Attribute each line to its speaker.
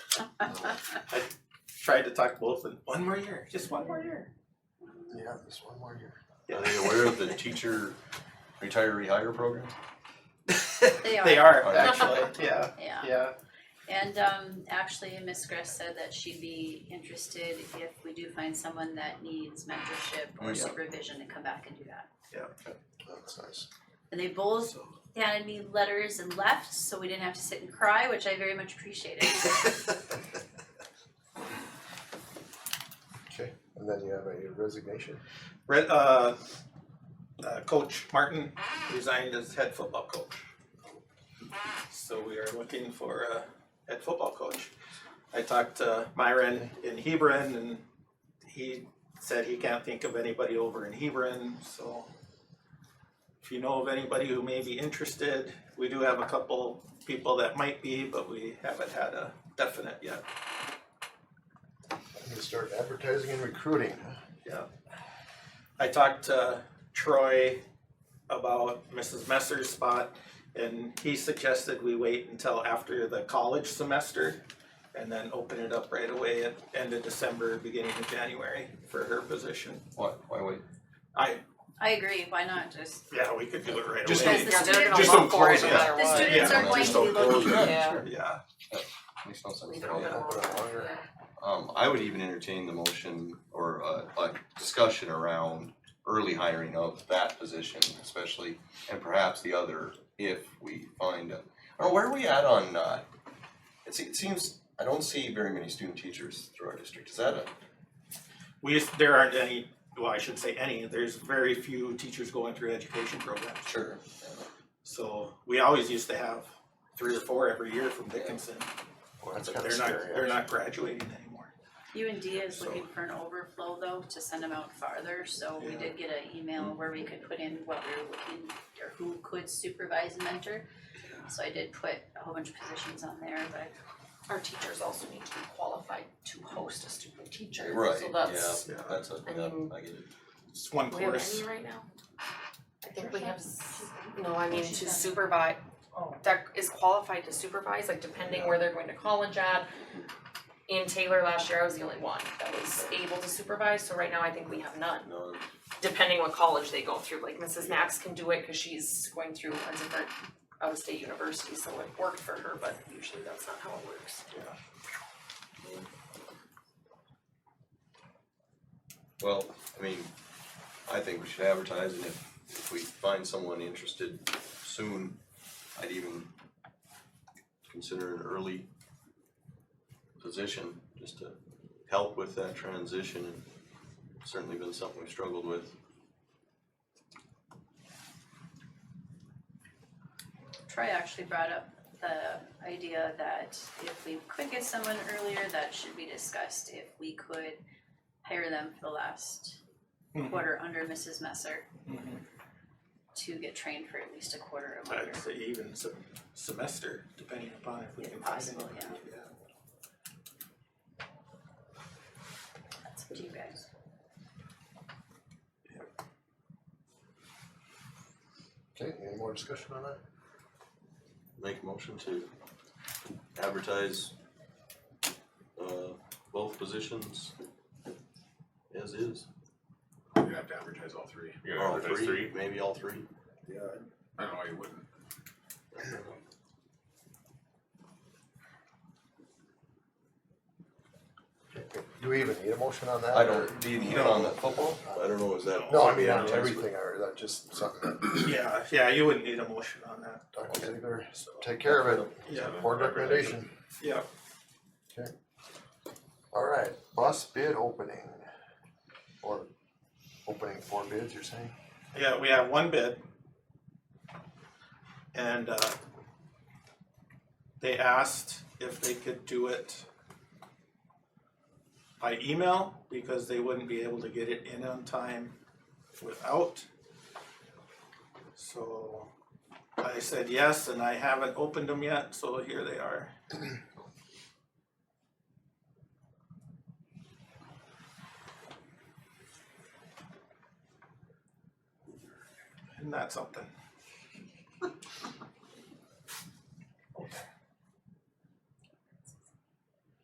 Speaker 1: I tried to talk to both of them. One more year, just one more year.
Speaker 2: Yeah, this one more year.
Speaker 3: Are they aware of the teacher retire rehire program?
Speaker 4: They are.
Speaker 1: They are
Speaker 3: Are they?
Speaker 1: actually. Yeah.
Speaker 4: Yeah,
Speaker 1: Yeah.
Speaker 4: and um, actually, Miss Gress said that she'd be interested if we do find someone that needs mentorship
Speaker 3: Oh,
Speaker 4: or
Speaker 3: yeah.
Speaker 4: supervision to come back and do that.
Speaker 2: That's nice.
Speaker 4: And they both handed me letters and left, so we didn't have to sit and cry, which I very much appreciated.
Speaker 2: Okay, and then you have a resignation.
Speaker 1: Red, uh, uh, Coach Martin resigned as head football coach. So we are looking for a head football coach. I talked to Myron in Hebron and he said he can't think of anybody over in Hebron, so if you know of anybody who may be interested, we do have a couple people that might be, but we haven't had a definite yet.
Speaker 2: I'm gonna start advertising and recruiting. huh?
Speaker 1: I talked to Troy about Mrs. Messer's spot, and he suggested we wait until after the college semester and then open it up right away at end of December, beginning of January for her position.
Speaker 3: Why, why wait?
Speaker 1: I,
Speaker 4: I agree. Why not just?
Speaker 1: yeah, we could do it right
Speaker 3: Just
Speaker 1: away.
Speaker 4: Because the
Speaker 5: Yeah, they're
Speaker 4: students,
Speaker 5: gonna
Speaker 3: Just don't
Speaker 5: look for it
Speaker 3: close
Speaker 5: no
Speaker 3: it.
Speaker 5: matter
Speaker 4: the
Speaker 5: what.
Speaker 4: students
Speaker 1: Yeah,
Speaker 4: are going
Speaker 3: Just
Speaker 4: to
Speaker 3: don't
Speaker 4: be
Speaker 3: close
Speaker 4: looking.
Speaker 3: it.
Speaker 5: Yeah.
Speaker 1: Yeah,
Speaker 3: Makes no sense.
Speaker 5: Leave it alone.
Speaker 2: Put it longer.
Speaker 3: Um, I would even entertain the motion or uh, a, a discussion around early hiring of that position especially, and perhaps the other if we find a, or where are we at on, uh, it se- it seems, I don't see very many student teachers through our district, is that a,
Speaker 1: we, just- there aren't any, well, I shouldn't say any, there's very few teachers going through education programs.
Speaker 3: sure?
Speaker 1: So we always used to have three or four every year from Dickinson,
Speaker 2: Well,
Speaker 1: but
Speaker 2: that's
Speaker 1: they're
Speaker 2: kinda
Speaker 1: not,
Speaker 2: scary,
Speaker 1: they're
Speaker 2: actually.
Speaker 1: not graduating anymore.
Speaker 4: U and D is
Speaker 1: So-
Speaker 4: looking for an overflow though to send them out farther, so we
Speaker 1: Yeah.
Speaker 4: did get an email where we could put in what we were looking or who could supervise and mentor. So I did put a whole bunch of positions on there, but
Speaker 5: Our teachers also need to be qualified to host a student teacher,
Speaker 3: Right,
Speaker 5: so that's,
Speaker 3: yeah, that's a, yeah, I get it.
Speaker 1: It's one
Speaker 5: do we have
Speaker 1: course.
Speaker 5: any right now? I think we have, s- no, I mean to supervise,
Speaker 6: Oh.
Speaker 5: that is qualified to supervise, like depending where they're going to college at. In Taylor last year, I was the only one that was able to supervise, so right now I think we have none,
Speaker 3: No,
Speaker 5: depending what college they go through, like Mrs. Max can do it, cause she's going through a different out-of-state university, so it worked for her, but usually that's not how it works.
Speaker 3: well, I mean, I think we should advertise and if, if we find someone interested soon, I'd even consider an early position just to help with that transition and certainly been something we've struggled with.
Speaker 4: Troy actually brought up the idea that if we could get someone earlier, that should be discussed, if we could hire them for the last
Speaker 1: Mhm.
Speaker 4: quarter under Mrs. Messer
Speaker 1: Mhm.
Speaker 4: to get trained for at least a quarter of a year.
Speaker 1: I'd say even some semester, depending upon if we
Speaker 4: If
Speaker 1: can find
Speaker 4: possible,
Speaker 1: anyone. yeah.
Speaker 4: That's up to you guys.
Speaker 2: Okay, any more discussion on that?
Speaker 3: Make a motion to advertise uh both positions as is.
Speaker 7: You have to advertise all three.
Speaker 8: You gotta
Speaker 3: All
Speaker 8: advertise
Speaker 3: three, maybe all three.
Speaker 2: Yeah.
Speaker 7: I don't know why you wouldn't.
Speaker 2: Do we even need a motion on that?
Speaker 3: I
Speaker 2: or-
Speaker 3: don't, do you need it on the football? I don't know, is that?
Speaker 2: No, I mean, on
Speaker 3: advertised with-
Speaker 2: everything, or that just something that
Speaker 1: Yeah, yeah, you wouldn't need a motion on that,
Speaker 2: Dr. Ziegler,
Speaker 1: so,
Speaker 2: take care of it,
Speaker 1: yeah,
Speaker 2: board recommendation.
Speaker 1: yeah.
Speaker 2: All right, bus bid opening, or opening four bids, you're saying?
Speaker 1: Yeah, we have one bid. And uh they asked if they could do it by email because they wouldn't be able to get it in on time without. So I said yes, and I haven't opened them yet, so here they are. Isn't that something?